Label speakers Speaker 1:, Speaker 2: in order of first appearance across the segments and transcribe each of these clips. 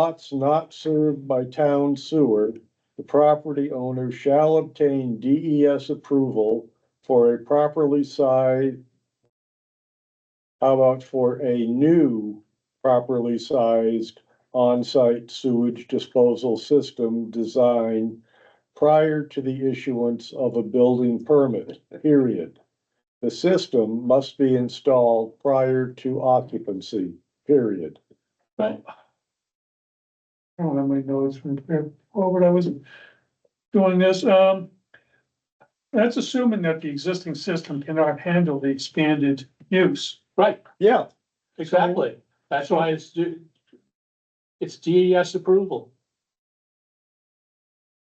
Speaker 1: lots not served by town sewer, the property owner shall obtain DES approval for a properly sized. How about for a new properly sized on-site sewage disposal system design prior to the issuance of a building permit, period. The system must be installed prior to occupancy, period.
Speaker 2: I don't have my notes from Robert, I was doing this, um. That's assuming that the existing system cannot handle the expanded use.
Speaker 3: Right,
Speaker 1: Yeah,
Speaker 3: exactly. That's why it's, d- it's DES approval.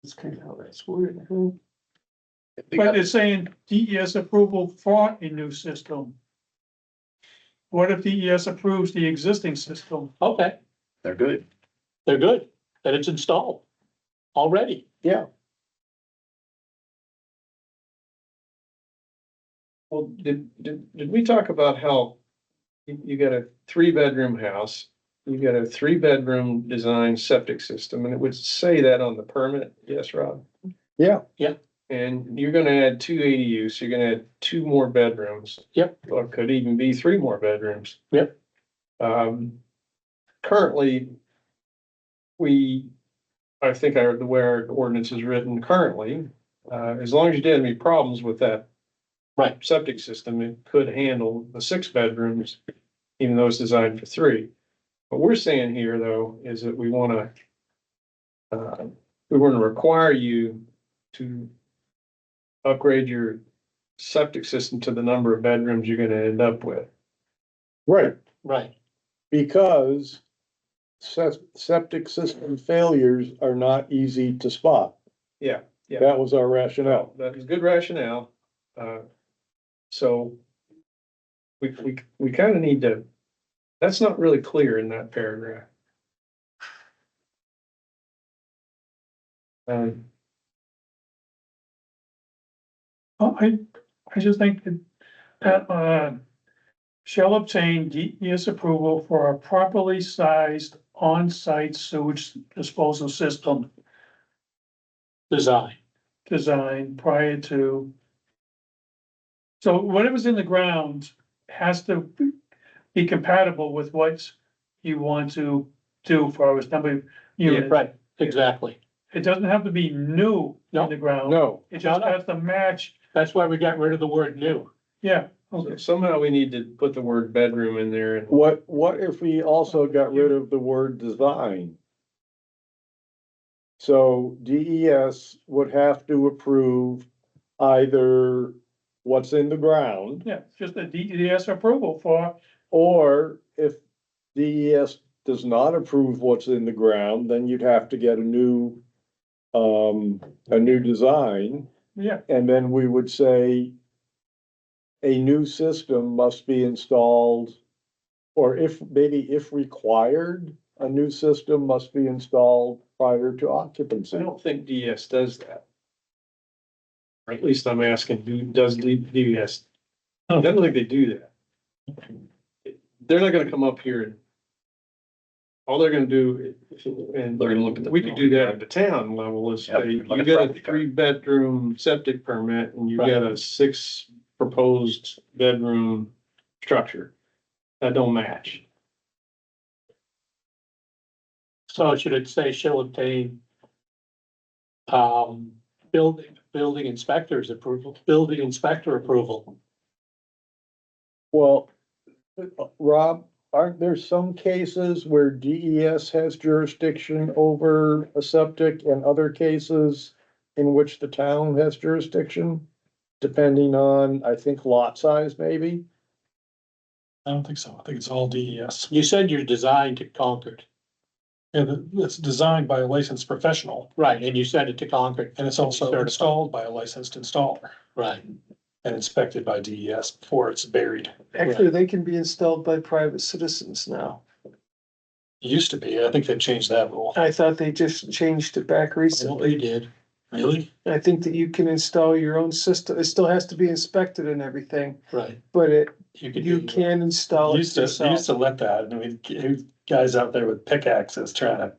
Speaker 3: It's kind of, that's weird.
Speaker 2: But it's saying DES approval for a new system. What if DES approves the existing system?
Speaker 3: Okay,
Speaker 4: They're good.
Speaker 3: they're good, that it's installed already.
Speaker 4: Well, did, did, did we talk about how you, you got a three-bedroom house, you got a three-bedroom design septic system, and it would say that on the permit, yes, Rob?
Speaker 1: Yeah.
Speaker 3: Yeah.
Speaker 4: And you're gonna add two ADUs, so you're gonna add two more bedrooms.
Speaker 3: Yep.
Speaker 4: Or could even be three more bedrooms.
Speaker 3: Yep.
Speaker 4: Um, currently, we, I think our, the way our ordinance is written currently, uh, as long as you didn't have any problems with that
Speaker 3: Right.
Speaker 4: septic system, it could handle the six bedrooms, even though it's designed for three. What we're saying here, though, is that we wanna, uh, we wanna require you to upgrade your septic system to the number of bedrooms you're gonna end up with.
Speaker 1: right,
Speaker 3: Right,
Speaker 1: because sep- septic system failures are not easy to spot.
Speaker 4: Yeah, yeah.
Speaker 1: That was our rationale.
Speaker 4: That is good rationale, uh, so we, we, we kinda need to, that's not really clear in that paragraph. Um,
Speaker 2: Oh, I, I just think that, that, uh, shall obtain DES approval for a properly sized on-site sewage disposal system
Speaker 3: design,
Speaker 2: design prior to. So whatever's in the ground has to be compatible with what you want to do for as number of units.
Speaker 3: right, exactly.
Speaker 2: It doesn't have to be new in the ground,
Speaker 1: No,
Speaker 2: it just has to match,
Speaker 3: That's why we got rid of the word new.
Speaker 2: yeah.
Speaker 4: So Somehow we need to put the word bedroom in there and
Speaker 1: what, what if we also got rid of the word design? So DES would have to approve either what's in the ground
Speaker 2: Yeah, it's just a DES approval for,
Speaker 1: Or if DES does not approve what's in the ground, then you'd have to get a new, um, a new design.
Speaker 2: yeah,
Speaker 1: And then we would say a new system must be installed, or if, maybe if required, a new system must be installed prior to
Speaker 4: I
Speaker 1: occupancy.
Speaker 4: don't think DS does that. Or at least I'm asking, do, does D- E DS? I don't think they do that. They're not gonna come up here and. All they're gonna do, and
Speaker 5: They're gonna look at the-
Speaker 4: we could do that at the town level is
Speaker 5: Yeah,
Speaker 4: say, you
Speaker 5: look at
Speaker 4: got a
Speaker 5: property card.
Speaker 4: three bedroom septic permit and you
Speaker 3: Right.
Speaker 4: got a six proposed bedroom structure. That don't match.
Speaker 3: So should it say shall obtain um, building, building inspectors approval, building inspector approval?
Speaker 1: Well, Rob, aren't there some cases where DES has jurisdiction over a septic and other cases in which the town has jurisdiction, depending on, I think, lot size maybe?
Speaker 6: I don't think so. I think it's all E DES.
Speaker 3: You said your design to Concord,
Speaker 6: And it's designed by a licensed professional
Speaker 3: right, and you sent it to Concord,
Speaker 6: and it's also
Speaker 3: Certified.
Speaker 6: installed by a licensed installer
Speaker 3: right?
Speaker 6: and inspected by DES before it's buried.
Speaker 3: Actually,
Speaker 5: they can be installed by private citizens now.
Speaker 6: It used to be, I think they changed that rule.
Speaker 5: I thought they just changed it back
Speaker 3: Well, they did.
Speaker 6: Really?
Speaker 5: I think that you can install your own system. It still has to be inspected and everything,
Speaker 3: Right,
Speaker 5: but it,
Speaker 3: you could.
Speaker 5: you
Speaker 3: do-
Speaker 5: can install it
Speaker 6: Used to, they used
Speaker 5: yourself.
Speaker 6: to let that, I mean, guys out there with pickaxes trying to